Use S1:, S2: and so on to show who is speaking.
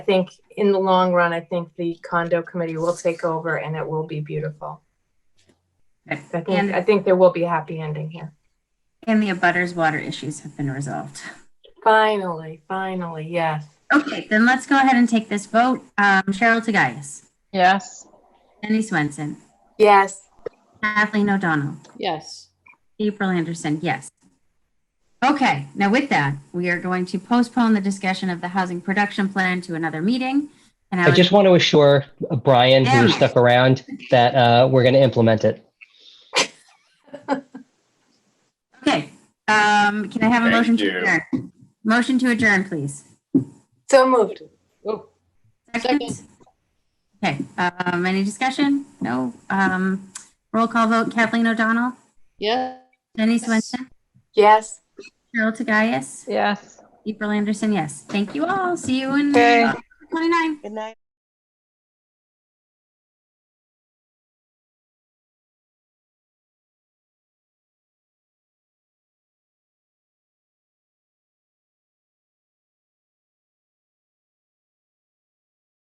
S1: I think in the long run, I think the condo committee will take over and it will be beautiful. I
S2: Okay.
S1: think,
S2: And-
S1: I think there will be a happy ending here.
S2: And the abutters water issues have been resolved.
S1: Finally, finally, yes.
S2: Okay, then let's go ahead and take this vote. Um, Cheryl Tagayas,
S3: Yes.
S2: Jenny Swenson,
S1: Yes,
S2: Kathleen O'Donnell,
S3: Yes.
S2: April Anderson, yes. Okay, now with that, we are going to postpone the discussion of the housing production plan to another meeting. And I
S4: I
S2: would-
S4: just want to assure uh, Brian, who
S2: Damn it.
S4: stuck around, that uh, we're going to implement it.
S2: okay, um, can I have a
S5: Thank
S2: motion to
S5: you.
S2: adjourn? Motion to adjourn, please.
S1: so moved.
S2: Second. Okay, um, any discussion? No, um, roll call vote Kathleen O'Donnell,
S3: Yes.
S2: Jenny Swenson,
S1: Yes.
S2: Cheryl Tagayas,
S3: Yes.
S2: April Anderson, yes. Thank you all. See you in
S3: Okay.
S2: uh, 29.
S6: Good night.